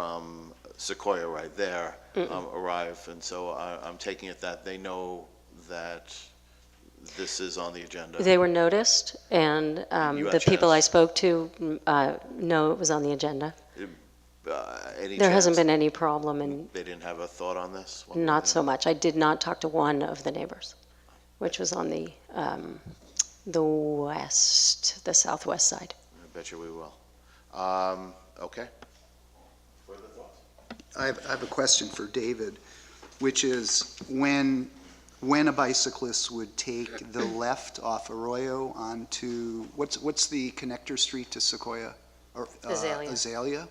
from Sequoia right there um, arrive, and so I- I'm taking it that they know that this is on the agenda. They were noticed, and um, the people UHS. I spoke to mm, uh, know it was on the agenda. Uh, Any There hasn't chance been any problem, and They didn't have a thought on this? Well, not then- so much. I did not talk to one of the neighbors, which was on the, um, the west, the southwest side. I bet you we will. Um, Okay. Further thoughts? I have, I have a question for David, which is when, when a bicyclist would take the left off Arroyo onto, what's, what's the connector street to Sequoia? Or, uh, Azalea. Azalea?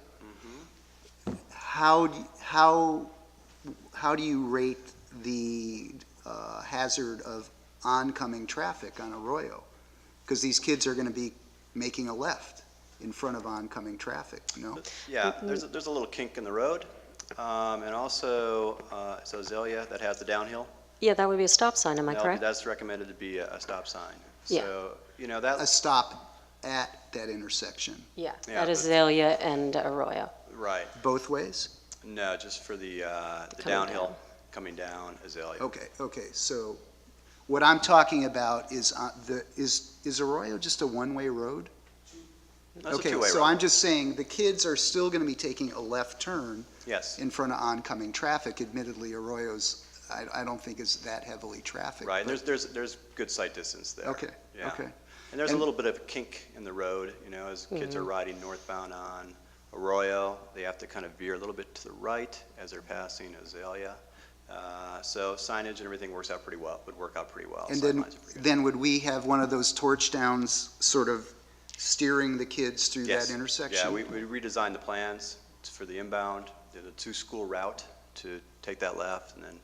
How, d- how, how do you rate the uh, hazard of oncoming traffic on Arroyo? Because these kids are going to be making a left in front of oncoming traffic, no? Yeah, there's, a- there's a little kink in the road, um, and also, uh, it's Azalea that has the downhill. Yeah, that would be a stop sign, am I Now, correct? That's recommended to be a, a stop sign. Yeah. So, you know, a that, stop at that intersection, Yeah, Yeah, at but- Azalea and Arroyo. right, both ways? no, just for the, uh, the Coming downhill, coming down Azalea. Okay, okay, so what I'm talking about is, uh, the, is, is Arroyo just a one-way road? That's a two-way Okay, so road, I'm just saying, the kids are still gonna be taking a left turn yes, in front of oncoming traffic. Admittedly, Arroyo's, I, I don't think is that heavily trafficked. right, and but- there's, there's, there's good sight distance there. Okay, Yeah. okay. And there's And- a Mm-hmm. little bit of a kink in the road, you know, as kids are riding northbound on Arroyo, they have to kind of veer a little bit to the right as they're passing Azalea. Uh, So signage and everything works out pretty well, would work out pretty well. And then, Sightlines are pretty good. then would we have one of those torch downs sort of steering the kids through Yes. that intersection? Yeah, we we redesigned the plans for the inbound, did a two-school route to take that left and then,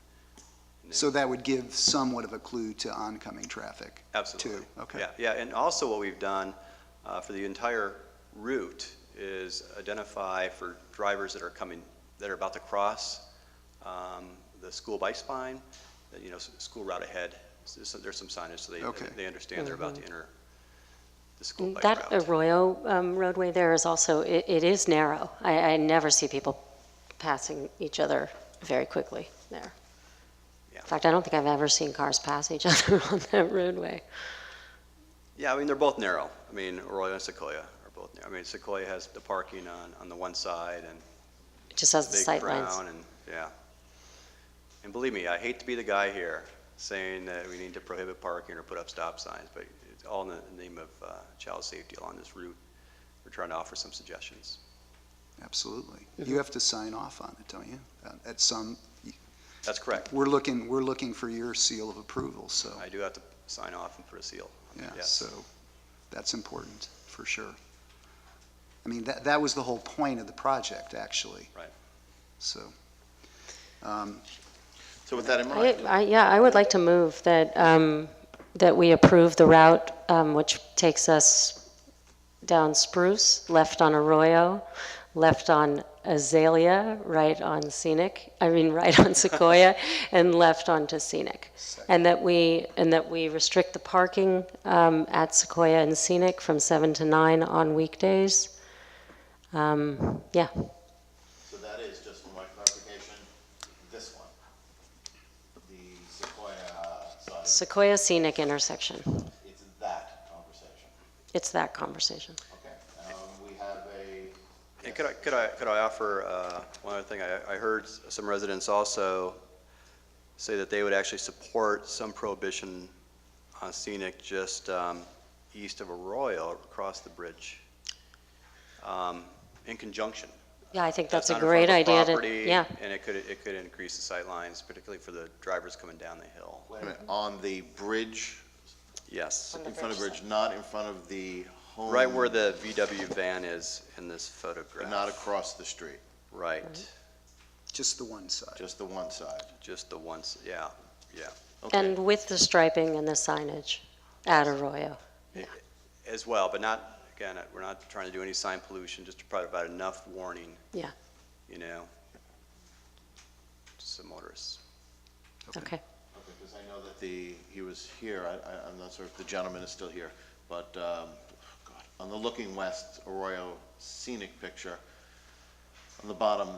So that would give somewhat of a clue to oncoming traffic, absolutely. too? Okay. Yeah, yeah, and also what we've done uh, for the entire route is identify for drivers that are coming, that are about to cross um, the school bike spine, that, you know, s- school route ahead. So There's some- there's some signage, so Okay. they, they understand they're about to enter the school bike That route. Arroyo um, roadway there is also, it it is narrow. I I never see people passing each other very quickly there. Yeah. In fact, I don't think I've ever seen cars pass each other on that roadway. Yeah, I mean, they're both narrow. I mean, Arroyo and Sequoia are both narrow. I mean, Sequoia has the parking on, on the one side and It just has the Big sight lines. Brown and, yeah. And believe me, I hate to be the guy here saying that we need to prohibit parking or put up stop signs, but it's all in the name of uh, child safety along this route. We're trying to offer some suggestions. Absolutely. You have to sign off on it, don't you? Uh, At some, That's correct. we're looking, we're looking for your seal of approval, so, I do have to sign off and put a seal. on it, yeah, yes. so that's important, for sure. I mean, that, that was the whole point of the project, actually. Right. So, um, So with that in I, mind, I, yeah, I would like to move that, um, that we approve the route, um, which takes us down Spruce, left on Arroyo, left on Azalea, right on Scenic, I mean, right on Sequoia, and left onto Scenic. And that we, and that we restrict the parking, um, at Sequoia and Scenic from seven to nine on weekdays. Um, yeah, so that is, just for my clarification, this one, the Sequoia side, Sequoia Scenic intersection. it's that conversation. It's that conversation. Okay, um, we have a, And could I, could I, could I offer, uh, one other thing, I, I heard s- some residents also say that they would actually support some prohibition on scenic just, um, east of Arroyo, across the bridge, um, in conjunction. Yeah, I think that's a not in front great of idea. to- property, Yeah, And it could, it could increase the sight lines, particularly for the drivers coming down the hill. wait a minute, on the bridge, Yes, in front of the bridge, not in front of the home. right where the VW van is in this photograph. Not across the street, Right, just the one side. just the one side. just the ones, yeah, yeah. and with the striping and the signage at Arroyo. as well, but not, again, we're not trying to do any sign pollution, just to provide enough warning. Yeah. You know, to some motorists. Okay. Okay, because I know that the, he was here, I, I, I'm not sure if the gentleman is still here, but, oh um, God, on the Looking West Arroyo scenic picture, the bottom